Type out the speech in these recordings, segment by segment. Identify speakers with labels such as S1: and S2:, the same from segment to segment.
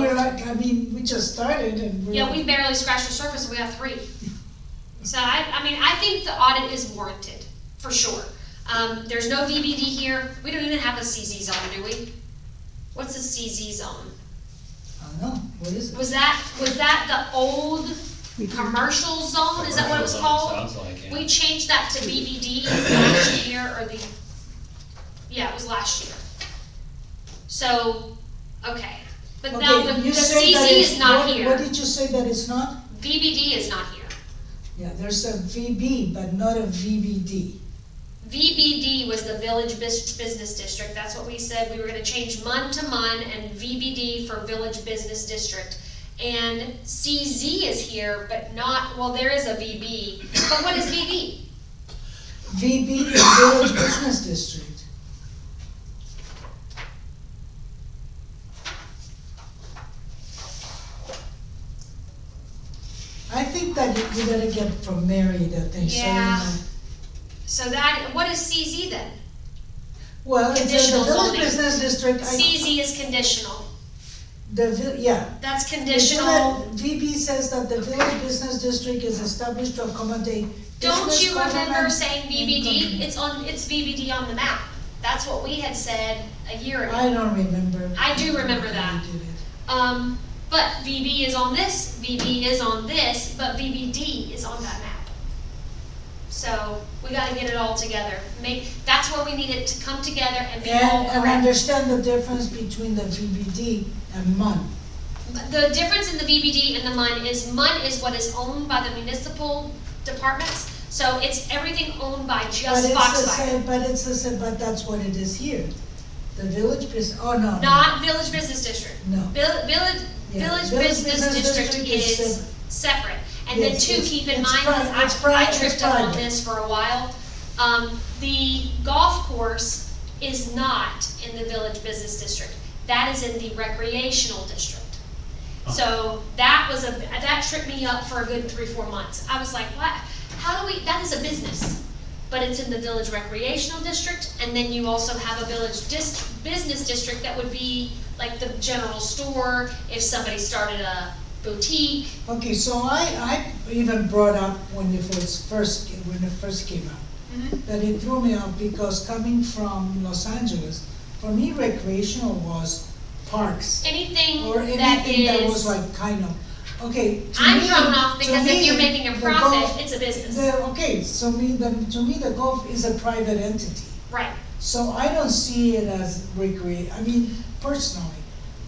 S1: that, I mean, we just started and we're.
S2: Yeah, we barely scratched the surface, we have three. So I, I mean, I think the audit is warranted, for sure. Um, there's no VBD here, we don't even have a CZ zone, do we? What's a CZ zone?
S1: I don't know, what is it?
S2: Was that, was that the old commercial zone, is that what it was called?
S3: Sounds like it.
S2: We changed that to BBD last year, or the, yeah, it was last year. So, okay, but now the,
S1: Okay,
S2: the
S1: you say that
S2: CZ
S1: it's-
S2: is not
S1: what-
S2: here.
S1: What did you say that it's not?
S2: VBD is not here.
S1: Yeah, there's a VB, but not a VBD.
S2: VBD was the Village Bus- Business District, that's what we said, we were gonna change MUN to MUN and VBD for Village Business District. And CZ is here, but not, well, there is a VB, but what is VB?
S1: VB is Village Business District. I think that you you gotta get from Mary that they say.
S2: Yeah. So that, what is CZ then?
S1: Well, it's in the
S2: Conditional
S1: Village
S2: zoning.
S1: Business District, I,
S2: CZ is conditional,
S1: the, vi- yeah,
S2: that's
S1: It's not
S2: conditional.
S1: that- VB says that the village business district is established to accommodate
S2: Don't
S1: business,
S2: you remember
S1: government,
S2: saying
S1: and
S2: VBD?
S1: community.
S2: It's on, it's VBD on the map, that's what we had said a year ago.
S1: I don't remember.
S2: I do remember that.
S1: We did it.
S2: Um, but VB is on this, VB is on this, but VBD is on that map. So we gotta get it all together. Make, that's where we need it to come together and be all
S1: And, and
S2: correct.
S1: understand the difference between the VBD and MUN.
S2: The difference in the VBD and the MUN is MUN is what is owned by the municipal departments. So it's everything owned by
S1: But
S2: just
S1: it's the
S2: Foxfire,
S1: same. But it's the same, but that's what it is here. The village business, oh, no. no,
S2: not Village Business District.
S1: No.
S2: Vil- Village,
S1: Yeah,
S2: Village Business District is separate. And then
S1: Yes,
S2: two,
S1: it's-
S2: keep in
S1: it's
S2: mind, 'cause
S1: private, it's
S2: I, I
S1: private,
S2: tripped
S1: it's
S2: up on
S1: private.
S2: this for a while. Um, the golf course is not in the village business district. That is in the recreational district.
S1: Oh.
S2: So that was a, that tripped me up for a good three, four months. I was like, what? How do we, that is a business. But it's in the village recreational district, and then you also have a village dis, business district that would be like the general store, if somebody started a boutique,
S1: Okay, so I, I even brought up when it was first, when it first came out. that it threw me off because coming from Los Angeles, for me recreational was parks
S2: anything
S1: or
S2: that
S1: anything that was
S2: is.
S1: like kind of, okay. to
S2: I'm
S1: me-
S2: thrown off
S1: to
S2: because if
S1: me,
S2: you're making a
S1: the golf-
S2: profit, it's a business,
S1: the- okay, so me, the, to me, the golf is a private entity.
S2: right?
S1: So I don't see it as recreate, I mean, personally,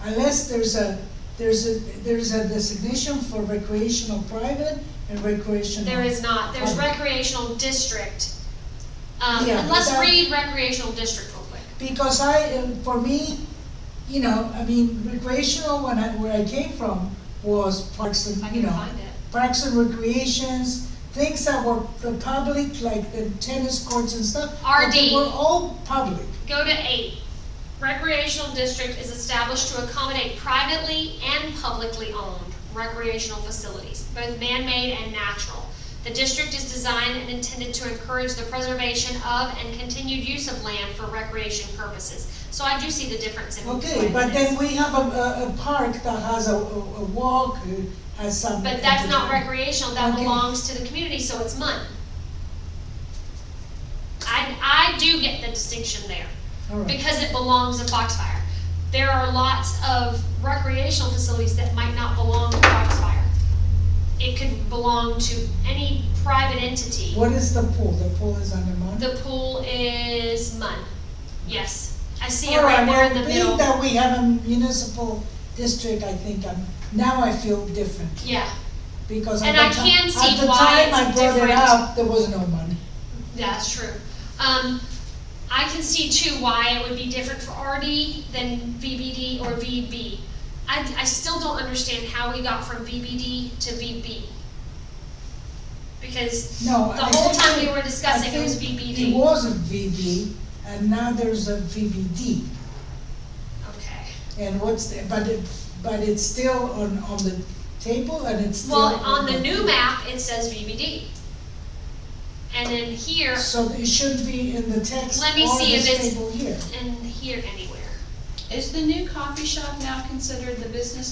S1: unless there's a, there's a, there's a designation for recreational private and recreational.
S2: There is not, there's
S1: Right.
S2: recreational district. Um,
S1: Oh. Yeah,
S2: and let's
S1: that-
S2: read recreational district real quick.
S1: Because I, uh, for me, you know, I mean, recreational, when I, where I came from, was parks
S2: If I
S1: and, you
S2: can
S1: know,
S2: find it.
S1: parks and recreations, things that were the public, like the tennis courts and stuff. but they
S2: RD.
S1: Were all public.
S2: Go to eight. Recreational district is established to accommodate privately and publicly owned recreational facilities, both man-made and natural. The district is designed and intended to encourage the preservation of and continued use of land for recreation purposes. So I do see the difference in.
S1: Okay,
S2: what
S1: but
S2: it
S1: then
S2: is.
S1: we have a, a, a park that has a, a a walk, uh, has some.
S2: But that's not recreational, that
S1: Okay.
S2: belongs to the community, so it's MUN. I, I do get the distinction there.
S1: All right.
S2: because it belongs to Foxfire. There are lots of recreational facilities that might not belong to Foxfire. It could belong to any private entity.
S1: What is the pool? The pool is under Mount?
S2: The pool is MUN, yes. I see it right there in the
S1: Being
S2: middle.
S1: that we have a municipal district, I think, I'm, now I feel different.
S2: Yeah,
S1: Because
S2: And
S1: at
S2: I
S1: the
S2: can
S1: time,
S2: see
S1: at the
S2: why
S1: time
S2: it's
S1: I brought it
S2: different.
S1: up, there was no money.
S2: that's true. Um, I can see too why it would be different for RD than VBD or VB. I, I still don't understand how we got from VBD to VB. Because
S1: No,
S2: The
S1: I
S2: whole
S1: think
S2: time
S1: it-
S2: we were discussing,
S1: I
S2: it was
S1: think
S2: VBD.
S1: It was a VB, and now there's a VBD,
S2: Okay.
S1: and what's, the- but it, but it's still on, on the table, and it's still.
S2: Well, on the new map, it says VBD. And then here,
S1: So it should be in the text
S2: Let me
S1: or
S2: see if
S1: this
S2: it's-
S1: table here.
S2: and here anywhere.
S4: Is the new coffee shop now considered the business